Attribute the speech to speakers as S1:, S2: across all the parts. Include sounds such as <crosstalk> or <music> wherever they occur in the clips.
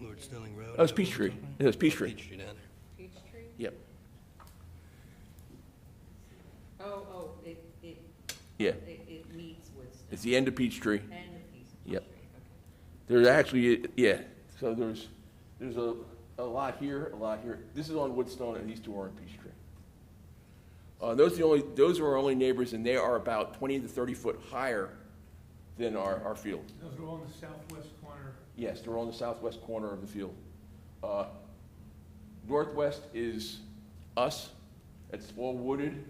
S1: Lord Stilling Road.
S2: Oh, it's Peachtree. It is Peachtree.
S1: Peachtree down
S3: Peachtree?
S2: Yep.
S3: Oh, oh, it, it,
S2: Yeah.
S3: it, it meets Woodstock
S2: It's the end of Peachtree.
S3: and the Peachtree.
S2: Yep.
S3: okay.
S2: There's actually, yeah, so there's, there's a, a lot here, a lot here. This is on Woodstone and these two are on Peachtree. Uh, those are the only, those are our only neighbors and they are about twenty to thirty foot higher than our, our field.
S4: Those are all in the southwest corner.
S2: Yes, they're on the southwest corner of the field. Uh, Northwest is us, it's all wooded,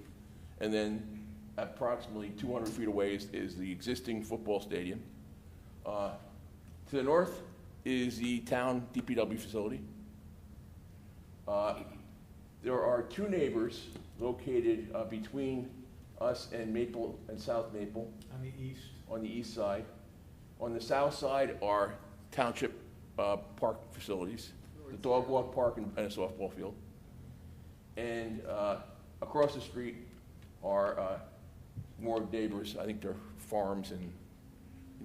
S2: and then approximately 200 feet away is, is the existing football stadium. Uh, To the north is the town DPW facility. Uh, There are two neighbors located uh, between us and Maple, and South Maple
S4: On the east,
S2: on the east side. On the south side are township uh, park facilities, the dog walk park and and a softball field. And uh, across the street are uh, more neighbors, I think they're farms and,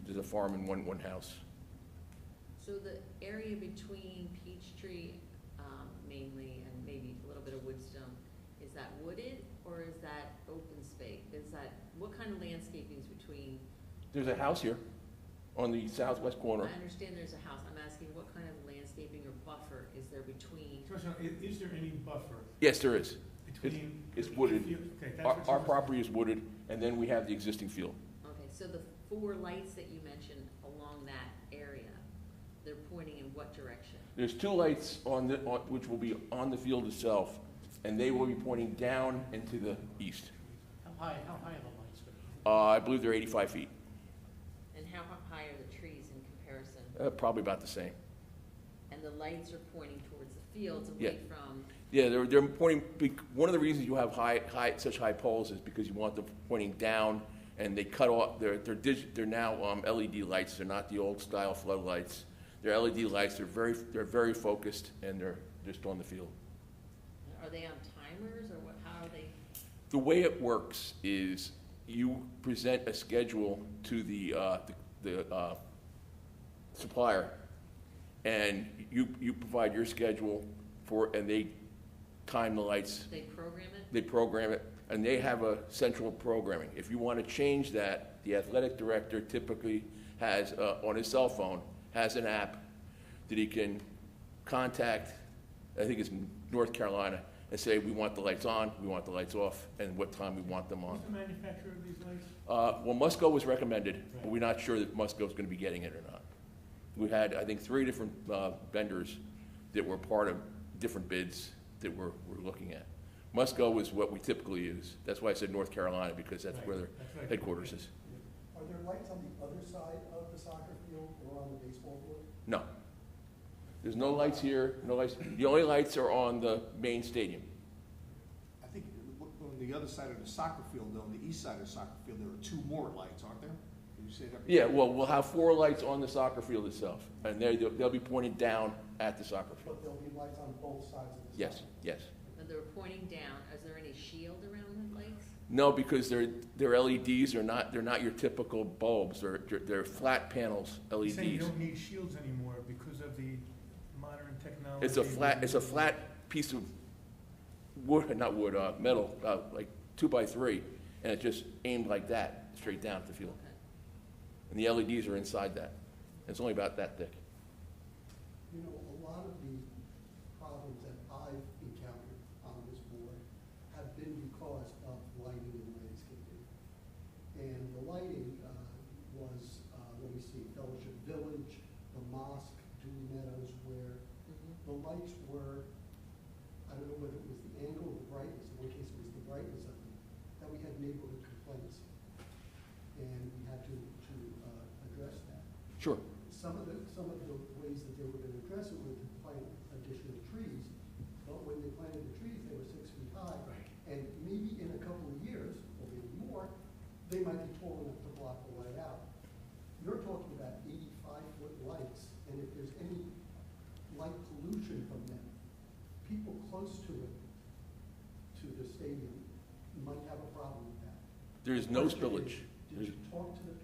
S2: there's a farm and one, one house.
S3: So the area between Peachtree, um, mainly, and maybe a little bit of Woodstone, is that wooded or is that open space? Is that, what kind of landscaping is between?
S2: There's a house here on the southwest
S3: I
S2: corner.
S3: understand there's a house, I'm asking what kind of landscaping or buffer is there between?
S4: Question, i- is there any buffer
S2: Yes, there is.
S4: between?
S2: It's wooded.
S4: if you- Okay, that's
S2: Our,
S4: what
S2: our
S4: you-
S2: property is wooded, and then we have the existing field.
S3: Okay, so the four lights that you mentioned along that area, they're pointing in what direction?
S2: There's two lights on the, on- which will be on the field itself, and they will be pointing down and to the east.
S5: How high, how high are the lights?
S2: Uh, I believe they're 85 feet,
S3: And how h- high are the trees in comparison?
S2: uh, probably about the same.
S3: And the lights are pointing towards the fields
S2: Yeah.
S3: away from,
S2: Yeah, they're, they're pointing, bec- one of the reasons you have high, high, such high poles is because you want them pointing down, and they cut off, they're, they're dig, they're now um, LED lights, they're not the old style floodlights. They're LED lights, they're very, they're very focused, and they're just on the field.
S3: are they on timers or what, how are they?
S2: The way it works is you present a schedule to the, uh, the the, uh, supplier, and you, you provide your schedule for, and they time the lights,
S3: They program it?
S2: they program it, and they have a central programming. If you want to change that, the athletic director typically has, uh, on his cell phone, has an app that he can contact, I think it's North Carolina, and say, we want the lights on, we want the lights off, and what time we want them on.
S4: Who's the manufacturer of these lights?
S2: Uh, Well, Musco was recommended, but we're not sure that Musco's going to be getting it or not. We had, I think, three different uh, vendors that were part of different bids that we're, we're looking at. Musco is what we typically use. That's why I said North Carolina, because that's where their
S4: Right, that's right.
S2: headquarters is.
S6: Are there lights on the other side of the soccer field or on the baseball field?
S2: No. There's no lights here, no lights. The only lights are on the main stadium.
S7: I think on the other side of the soccer field, though, on the east side of the soccer field, there are two more lights, aren't there? Did you say that?
S2: Yeah, well, we'll have four lights on the soccer field itself, and they, they'll be pointed down at the soccer field.
S6: But there'll be lights on both sides of the soccer?
S2: Yes, yes.
S3: When they're pointing down, is there any shield around the lights?
S2: No, because they're, they're LEDs, they're not, they're not your typical bulbs, they're, they're- they're flat panels, E
S4: He's Saying you
S2: LEDs.
S4: don't need shields anymore because of the modern technology.
S2: It's a flat, it's a flat piece of wood, <laughs> not wood, uh, metal, uh, like two by three, and it's just aimed like that, straight down at the field.
S3: Okay.
S2: And the LEDs are inside that. It's only about that thick.
S6: You know, a lot of the problems that I've encountered on this board have been because of lighting and landscaping. And the lighting uh, was, uh, let me see, Fellowship Village, the mosque, Dewey Meadows, where
S3: Mhm.
S6: the lights were, I don't know whether it was the angle or the brightness, in one case it was the brightness of them, that we had neighborhood complaints. And we had to, to uh, address that.
S2: Sure.
S6: Some of the, some of the ways that they were gonna address it were to plant additional trees, but when they planted the trees, they were six feet high. And maybe in a couple of years, or maybe more, they might be tall enough to block the light out. You're talking about eighty-five foot lights, and if there's any light pollution from them, people close to it, to the stadium, might have a problem with that.
S2: There's no spillage.
S6: Did you talk to the